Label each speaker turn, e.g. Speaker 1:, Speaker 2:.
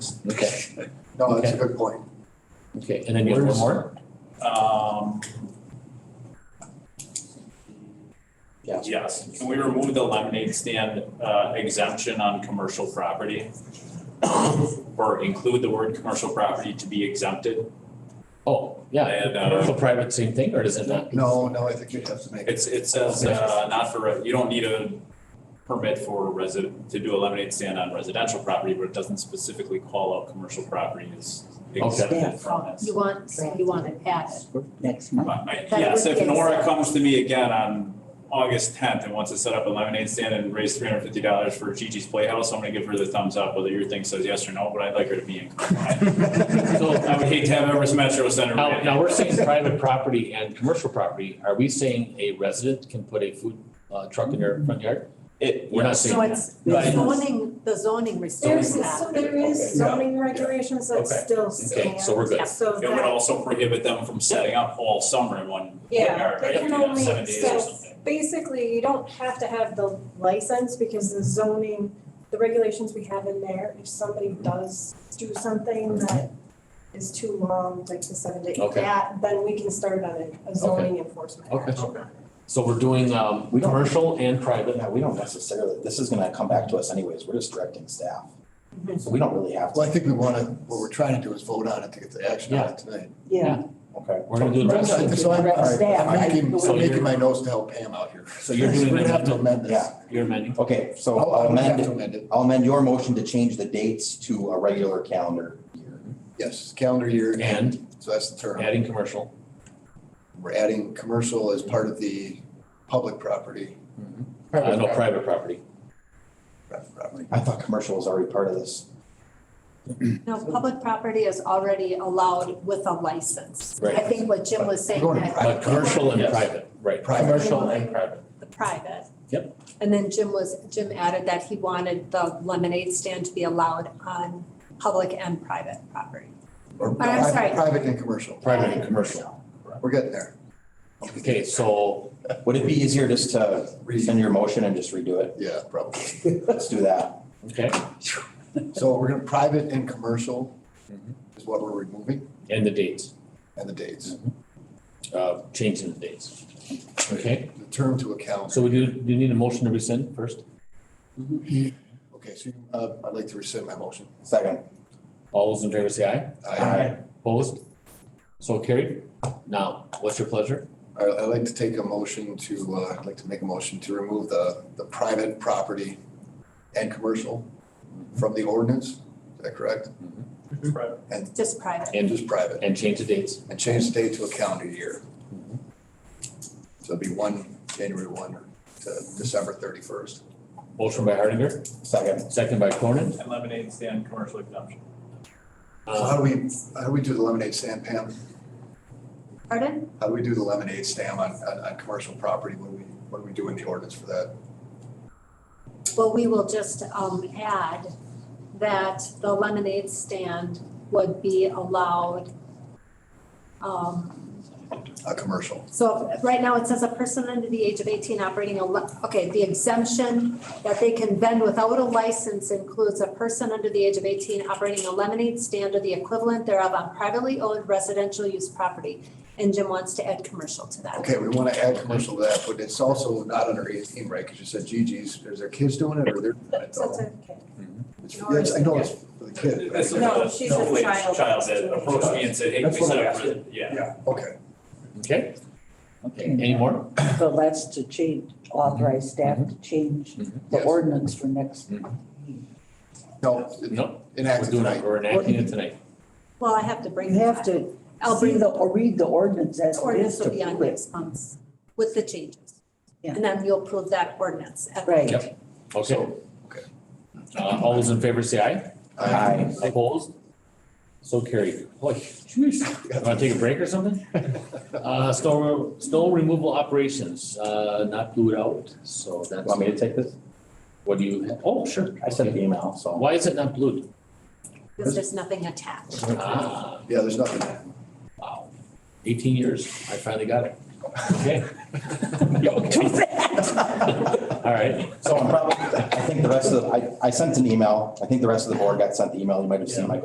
Speaker 1: No, that's a good point.
Speaker 2: Okay, and then you have one more?
Speaker 3: Um,
Speaker 2: Yes.
Speaker 3: yes, can we remove the lemonade stand uh, exemption on commercial property? Or include the word commercial property to be exempted?
Speaker 2: Oh, yeah,
Speaker 3: And, uh,
Speaker 2: commercial, private, same thing, or does it not?
Speaker 1: No, no, I think you have to make it.
Speaker 3: It's, it says, uh, not for, re- you don't need a permit for resident, to do a lemonade stand on residential property, but it doesn't specifically call out commercial property as
Speaker 4: Yeah.
Speaker 3: exempted from this.
Speaker 5: You want, you want it added.
Speaker 4: next month.
Speaker 3: My- my-
Speaker 5: That
Speaker 3: Yes,
Speaker 5: would
Speaker 3: if
Speaker 5: make
Speaker 3: Nora
Speaker 5: sense.
Speaker 3: comes to me again on August tenth and wants to set up a lemonade stand and raise three hundred fifty dollars for Gigi's Playhouse, I'm gonna give her the thumbs up, whether your thing says yes or no, but I'd like her to be in. compliance.
Speaker 2: So-
Speaker 3: I would hate to have Everest Metro Center.
Speaker 2: Now, now, we're saying private property and commercial property, are we saying a resident can put a food uh, truck in their front yard?
Speaker 3: It,
Speaker 2: We're not saying
Speaker 5: So
Speaker 2: that.
Speaker 5: it's the zoning, the zoning
Speaker 6: There's,
Speaker 5: restricts
Speaker 6: so
Speaker 5: that.
Speaker 6: there is zoning regulations that
Speaker 2: Okay.
Speaker 6: still
Speaker 2: Okay,
Speaker 6: stand,
Speaker 2: so we're good.
Speaker 6: so
Speaker 3: it would
Speaker 6: that,
Speaker 3: also prohibit them from setting up all summer in one
Speaker 6: yeah,
Speaker 3: yard,
Speaker 6: they
Speaker 3: right?
Speaker 6: can
Speaker 3: You know,
Speaker 6: only,
Speaker 3: Seven days or
Speaker 6: so
Speaker 3: something.
Speaker 6: basically, you don't have to have the license because the zoning, the regulations we have in there, if somebody does do something that is too long, like the seven day,
Speaker 2: Okay.
Speaker 6: that, then we can start on a- a zoning enforcement
Speaker 2: Okay.
Speaker 6: action.
Speaker 2: So we're doing, um,
Speaker 4: We don't-
Speaker 2: commercial and private.
Speaker 4: No, we don't necessarily, this is gonna come back to us anyways, we're just directing staff.
Speaker 2: Mm-hmm.
Speaker 4: So we don't really have
Speaker 1: Well, I
Speaker 4: to.
Speaker 1: think we want to, what we're trying to do is vote on it to get the action on it tonight.
Speaker 4: Yeah. Okay.
Speaker 2: We're gonna do the rest of it.
Speaker 1: So I'm,
Speaker 4: Direct staff,
Speaker 1: I'm making,
Speaker 2: So
Speaker 1: I'm making
Speaker 2: you're-
Speaker 1: my notes to help Pam out here.
Speaker 2: So you're doing
Speaker 1: We're gonna have to
Speaker 2: the,
Speaker 1: amend this.
Speaker 4: Yeah,
Speaker 2: you're amending?
Speaker 4: okay,
Speaker 1: I'll-
Speaker 4: so I'll
Speaker 1: I'll have
Speaker 4: amend,
Speaker 1: to amend it.
Speaker 4: I'll amend your motion to change the dates to a regular calendar year.
Speaker 1: Yes, calendar year and,
Speaker 2: And
Speaker 1: so that's the term.
Speaker 2: adding commercial.
Speaker 1: We're adding commercial as part of the public property.
Speaker 2: Uh, no, private property.
Speaker 1: private property.
Speaker 4: I thought commercial was already part of this.
Speaker 5: No, public property is already allowed with a license.
Speaker 2: Right.
Speaker 5: I think what Jim was saying,
Speaker 1: We're going to
Speaker 5: that
Speaker 2: But commercial and
Speaker 1: Yes.
Speaker 2: private, right.
Speaker 1: Private.
Speaker 2: Commercial and private.
Speaker 5: the private.
Speaker 2: Yep.
Speaker 5: And then Jim was, Jim added that he wanted the lemonade stand to be allowed on public and private property.
Speaker 1: Or
Speaker 5: Oh, I'm
Speaker 1: private-
Speaker 5: sorry.
Speaker 1: Private and commercial.
Speaker 2: Private and commercial.
Speaker 1: We're getting there.
Speaker 2: Okay, so
Speaker 4: Would it be easier just to rescind your motion and just redo it?
Speaker 1: Yeah, probably.
Speaker 4: Let's do that.
Speaker 2: okay,
Speaker 1: So we're gonna, private and commercial
Speaker 2: Mhm.
Speaker 1: is what we're removing
Speaker 2: and the dates,
Speaker 1: and the dates,
Speaker 2: uh, changing the dates. Okay,
Speaker 1: the term to account.
Speaker 2: so we do, do you need a motion to rescind first?
Speaker 1: Okay, so uh, I'd like to rescind my motion.
Speaker 4: Second.
Speaker 2: All those in favor say aye.
Speaker 1: I,
Speaker 2: Opposed? So carried. Now, what's your pleasure?
Speaker 1: I- I'd like to take a motion to, uh, I'd like to make a motion to remove the, the private property and commercial from the ordinance. Is that correct?
Speaker 5: Just private.
Speaker 2: And,
Speaker 1: Just private
Speaker 2: and change the dates.
Speaker 1: and change the date to a calendar year. So it'd be one, January one to December thirty-first.
Speaker 2: Motion by Hardinger,
Speaker 4: Second.
Speaker 2: second by Cronin.
Speaker 3: And lemonade stand, commercial exemption.
Speaker 2: Uh.
Speaker 1: So how do we, how do we do the lemonade stand, Pam?
Speaker 5: Pardon?
Speaker 1: How do we do the lemonade stand on, on, on commercial property? What do we, what do we do in the ordinance for that?
Speaker 5: Well, we will just um, add that the lemonade stand would be allowed. um,
Speaker 1: A uh, commercial.
Speaker 5: So right now, it says a person under the age of 18 operating a, le- okay, the exemption that they can vend without a license includes a person under the age of 18 operating a lemonade stand or the equivalent thereof on privately owned residential use property. And Jim wants to add commercial to that.
Speaker 1: Okay, we want to add commercial to that, but it's also not under eighteen, right? Because you said GG's, is their kids doing it or they're? doing it?
Speaker 6: That's okay.
Speaker 1: It's- yes, I know it's for the kid.
Speaker 3: That's a-
Speaker 1: right?
Speaker 6: No, she's a
Speaker 3: no, wait,
Speaker 6: child.
Speaker 3: Child that approached me and said, hey, can we
Speaker 1: That's what
Speaker 3: set
Speaker 1: I
Speaker 3: up,
Speaker 1: asked
Speaker 3: for-" yeah.
Speaker 1: Yeah, okay.
Speaker 2: Okay, any more?
Speaker 7: So that's to change, authorize staff to change the
Speaker 1: Yes.
Speaker 7: ordinance for next.
Speaker 1: No, it-
Speaker 2: No, we're
Speaker 1: enacted
Speaker 2: doing it,
Speaker 1: tonight.
Speaker 2: we're enacting it tonight.
Speaker 5: Well, I have to bring
Speaker 7: You
Speaker 5: that.
Speaker 7: have to
Speaker 5: I'll
Speaker 7: see
Speaker 5: bring the
Speaker 7: the, or read the ordinance as it is
Speaker 5: ordinance
Speaker 7: to
Speaker 5: will be on
Speaker 7: prove it.
Speaker 5: next month's with the changes.
Speaker 7: Yeah.
Speaker 5: And then you'll approve that ordinance. at-
Speaker 7: Right.
Speaker 2: Yep. Okay.
Speaker 1: okay.
Speaker 2: Uh, all those in favor say aye.
Speaker 4: Aye.
Speaker 2: Opposed? So carried. Boy, jeez. Want to take a break or something? Uh, snow, re- snow removal operations, uh, not blued out, so that's.
Speaker 4: Want me to take this?
Speaker 2: What do you, oh, sure.
Speaker 4: I sent an email, so.
Speaker 2: Why is it not blued?
Speaker 5: Because there's nothing attached.
Speaker 2: Ah,
Speaker 1: Yeah, there's nothing.
Speaker 2: wow. Eighteen years, I finally got it. Okay. All right,
Speaker 4: So I'm probably, I think the rest of, the I, I sent an email. I think the rest of the board got sent the email. You might have seen my